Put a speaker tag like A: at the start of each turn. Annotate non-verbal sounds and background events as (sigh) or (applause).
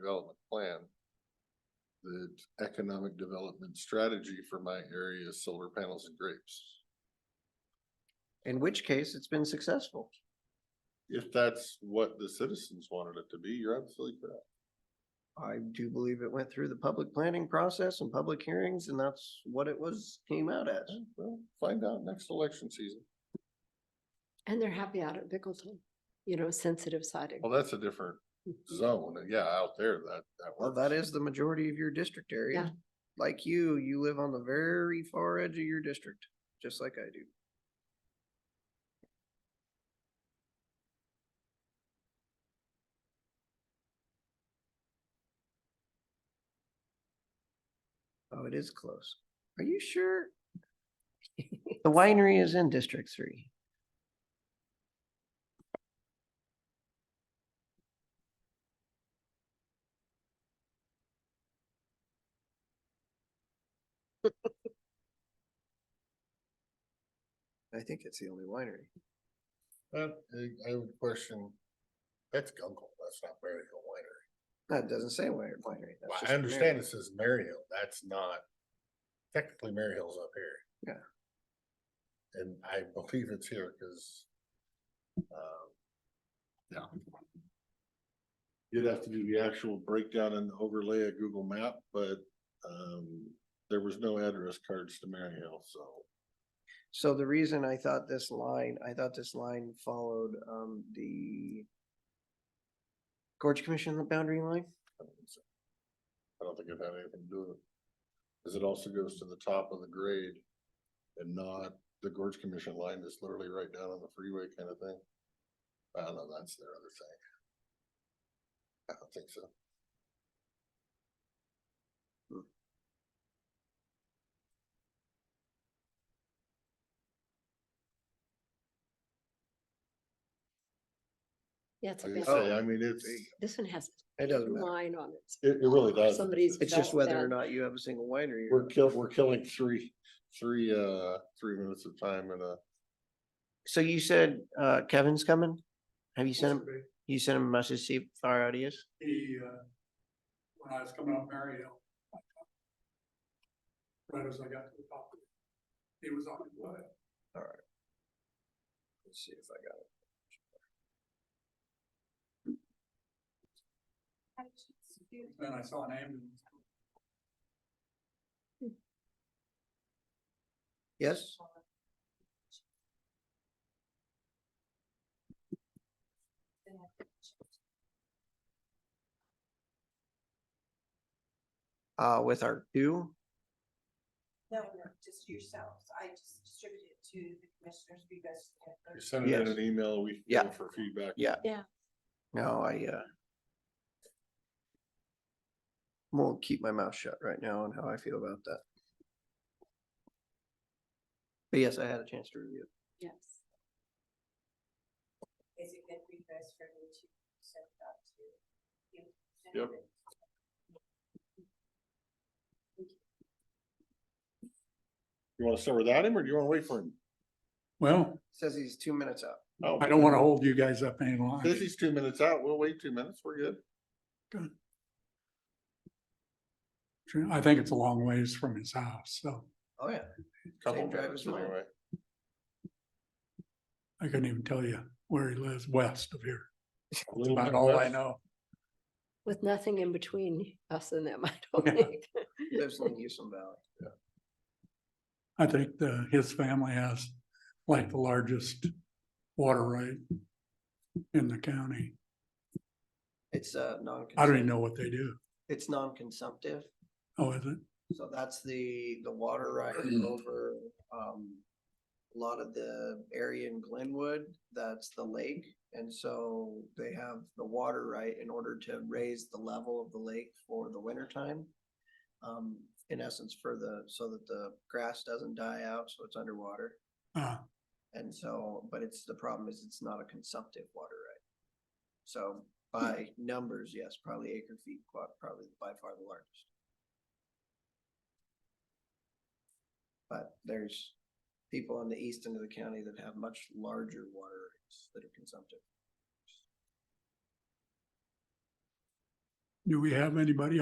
A: development plan. The economic development strategy for my area is solar panels and grapes.
B: in which case it's been successful.
A: If that's what the citizens wanted it to be, you're absolutely correct.
B: I do believe it went through the public planning process and public hearings and that's what it was, came out as.
A: Okay, Well, find out next election season.
C: And they're happy out at Bickleton, you know, sensitive siding.
B: Oh,
A: Well, that's a different zone. Yeah, out there, that, that
B: Well,
A: works.
B: that is the majority of your district area.
C: Yeah.
B: Like you, you live on the very far edge of your district, just like I do. Oh, it is close. Are you sure? The winery is in District Three. I think it's the only winery.
A: But Uh, I, I would question, that's Gunkel, that's not Berryhill Winery.
B: That doesn't say wine- winery. that's
A: Well,
B: just
A: I
B: a
A: understand
B: marriage.
A: it says Maryhill, that's not, technically Maryhill's up here. Yeah. And I believe it's here, cause, um. Yeah. You'd have to do the actual breakdown and overlay of Google map, but, um, there was no address cards to Maryhill, so.
B: So the reason I thought this line, I thought this line followed um the Gorge Commission boundary line.
A: I don't think so. I don't think it had anything to do with it. Cause it also goes to the top of the grade and not the gorge commission line that's literally right down on the freeway kind of thing. I don't know, that's their other thing. I don't think so.
C: Yeah, it's a
A: Like I
C: big,
A: say, I mean, it's,
C: this one has
B: It
C: a
B: Oh. doesn't matter.
C: line on it.
A: it, it really does.
C: Somebody's
B: It's just whether or
C: Southbound.
B: not you have a single winery. or
A: We're
B: not.
A: kill, we're killing three, three, uh, three minutes of time in a.
B: So you said uh Kevin's coming? Have you sent him, you sent him a message, to see if our audience?
D: He, uh, when I was coming up Maryhill. Right as uh, I got to the top, of it, he was on the way.
B: Let's see if I got it.
D: Then I saw an ambulance.
B: Yes? Uh, with our two,
E: No, no, just yourselves. I just distributed it to the commissioners because.
A: You send it in
B: Yes.
A: an email, we.
B: Yeah.
A: For feedback.
B: Yeah.
C: Yeah.
B: no, I, uh. Won't keep my mouth shut right now on how I feel about that. But yes, I had a chance to review. it.
C: Yes.
E: Is it good for you guys for me to send it out to? you?
A: Yep. You wanna start without him or do you wanna wait for him?
D: Well,
B: Says he's two minutes out.
A: Oh.
D: I don't wanna hold you guys up any longer.
A: Since he's two minutes out, we'll wait two minutes, we're good.
D: True, I think it's a long ways from his house, so
B: Oh, yeah.
A: Couple
B: Same drive
A: minutes
B: as mine.
A: anyway.
D: I couldn't even tell you where he lives west of here.
A: A little
D: About
A: bit
D: all I
A: less.
D: know.
C: With nothing in between us and them, (laughs) I
D: Yeah.
C: don't think.
B: Lives in Houston Valley.
D: I think the, his family has like the largest water right in the county.
B: It's, uh, non.
D: I don't even know what they do.
B: It's non-consumptive.
D: Oh, is it?
B: So that's the, the water (clears throat) right over, um, a lot of the area in Glenwood, that's the lake. And so they have the water right in order to raise the level of the lake for the winter time. Um, in essence, for the, so that the grass doesn't die out, so it's underwater.
D: Uh,
B: And so, but it's, the problem is it's not a consumptive water right. So by numbers, yes, probably acre feet, qua- probably by far the largest. But there's people on the east end of the county that have much larger water rights that are consumptive.
D: Do we have anybody